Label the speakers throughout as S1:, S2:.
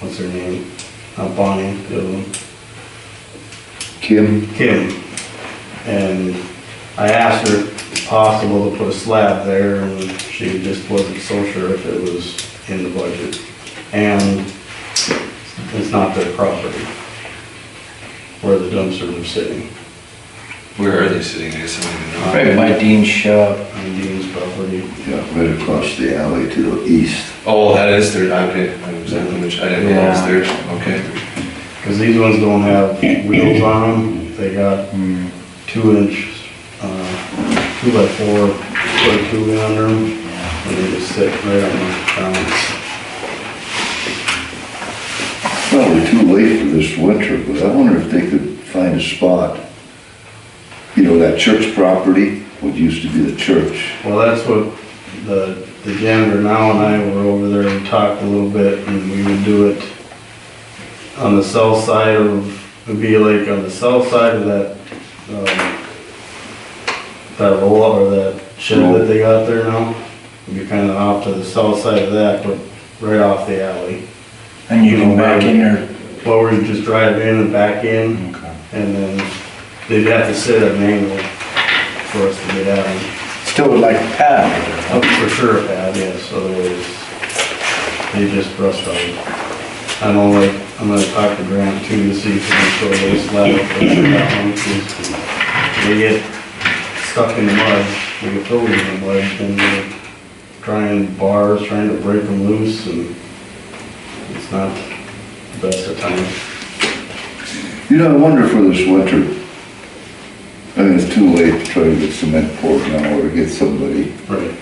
S1: what's her name? Uh, Bonnie, the other one.
S2: Kim,
S1: Kim. And I asked her if it's possible to put a slab there, and she just wasn't so sure if it was in the budget. And it's not their property, where the dumpsters are sitting,
S3: Where are they sitting? I guess I don't even know.
S4: Right by Dean's shop.
S1: on Dean's property.
S2: yeah, right across the alley to the east.
S3: Oh, that is their, okay, I was at the which, I didn't know it was theirs, okay.
S1: Because these ones don't have wheels on them, they got two inch, uh, two by four, foot tube under them, and they just sit right on the ground.
S2: Probably too late for this winter, but I wonder if they could find a spot. You know, that church property, what used to be the church.
S1: Well, that's what the, the janitor now and I were over there and talked a little bit, and we would do it on the south side of, it'd be like on the south side of that, um, that roll or that shed that they got there now. It'd be kinda off to the south side of that, but right off the alley.
S4: And you go back in there.
S1: Well, we just drive in and back in, and then they'd have to sit at an angle for us to get out. of.
S4: Still would like a pad.
S1: Oh, for sure a pad, yes, otherwise they just rust out. I know, like, I'm gonna talk to Grant too to see if he can throw those slab up there, that one, 'cause They get stuck in the mud, they get filled in the mud, then they're trying bars, trying to break them loose and it's not the best of times.
S2: You know, I wonder for this winter, I mean, it's too late to try to get cement poured now or to get somebody.
S1: Right.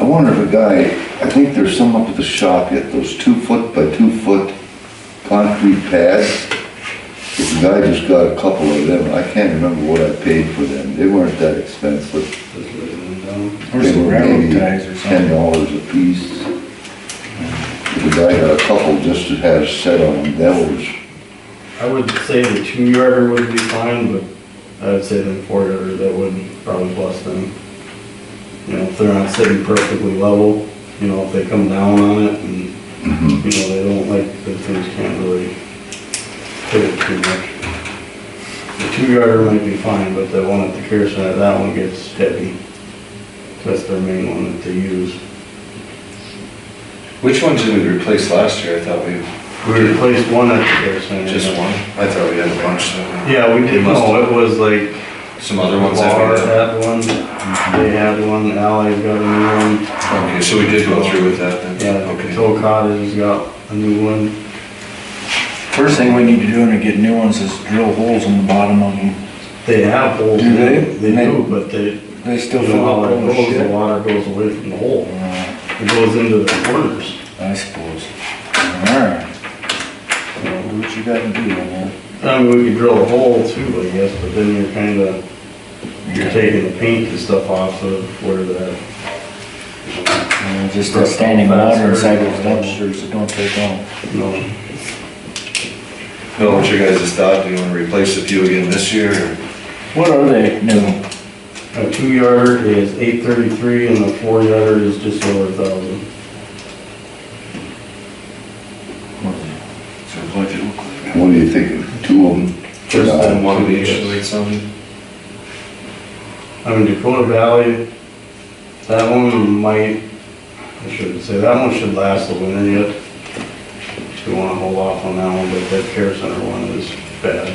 S2: I wonder if a guy, I think there's some up at the shop yet, those two foot by two foot concrete pads. If a guy just got a couple of them, I can't remember what I paid for them, they weren't that expensive.
S1: Just letting them down.
S4: Or some railroad ties or
S2: Ten
S4: something.
S2: dollars a piece. If a guy got a couple just to have set on them, that was,
S1: I would say the two yarder would be fine, but I would say the four yarder, that would probably bust them. You know, if they're not sitting perfectly level, you know, if they come down on it and,
S2: mm-hmm.
S1: you know, they don't like, the things can't really hit it too much. The two yarder might be fine, but the one at the care center, that one gets heavy. That's their main one that they use.
S3: Which ones did we replace last year? I thought we,
S1: We replaced one at the care center.
S3: just one? I thought we had a bunch, so.
S1: Yeah, we did, no, it was like
S3: Some other ones that
S1: Bar
S3: we
S1: had one, they had one, Ally's got a new one,
S3: Okay, so we did go through with that then?
S1: yeah, the
S3: Okay.
S1: Patrol Cottage's got a new one,
S4: First thing we need to do when we get new ones is drill holes in the bottom of them.
S1: they have holes in
S4: Do
S1: it,
S4: they?
S1: they do, but they,
S4: They
S1: the
S4: still fill up
S1: water
S4: all the
S1: goes, the
S4: shit.
S1: water goes away from the hole,
S4: Uh,
S1: it goes into the corners.
S4: I suppose. Alright. Well, do What you gotta do, man?
S1: I mean, we could drill a hole too, I guess, but then you're kinda, you're taking the paint and stuff off of where the,
S4: Uh, Just that standing water inside those dumpsters that don't take long.
S1: you know,
S3: Bill, what's your guys' thought? Do you wanna replace a few again this year? or-
S4: What are they new?
S1: a two yarder is eight thirty-three and the four yarder is just over a thousand.
S2: what do you think, two of them?
S1: Just
S2: Uh,
S1: the
S3: One of each,
S1: yes.
S3: like something?
S1: I mean, Dakota Valley, that one might, I shouldn't say, that one should last the winter yet. If you wanna hold off on that one, but that care center one is bad.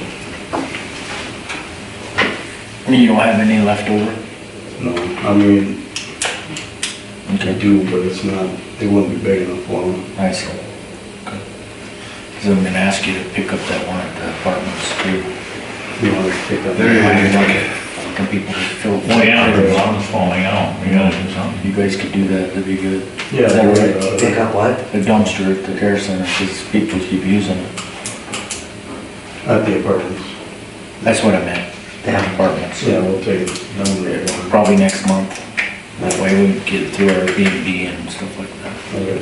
S4: You don't have any left over?
S1: No, I mean, they do, but it's not, it wouldn't be big enough for them.
S4: I see. Because I'm gonna ask you to pick up that one at the apartments too.
S1: You know, it's picked up.
S3: There you go.
S4: Can people fill?
S5: Well, yeah, the bottom's falling out, we gotta do something.
S4: You guys could do that, that'd be good.
S1: Yeah.
S4: Is that right?
S1: uh,
S6: Pick up what?
S4: The dumpster at the care center, because people keep using it.
S1: At the apartments.
S4: That's what I meant, the
S6: Yeah.
S4: apartments.
S1: Yeah, we'll take it down there.
S4: Probably next month. That way we can get through our B and B and stuff like that.
S1: Okay.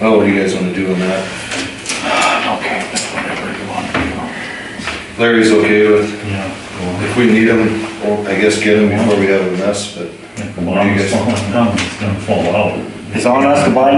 S3: Oh, what do you guys wanna do on that?
S4: Okay, that's whatever you want to do.
S3: Larry's okay with,
S5: Yeah.
S3: if we need him, well, I guess get him before we have a mess, but.
S5: If the bottom's falling down, it's gonna fall out.
S4: It's on us to buy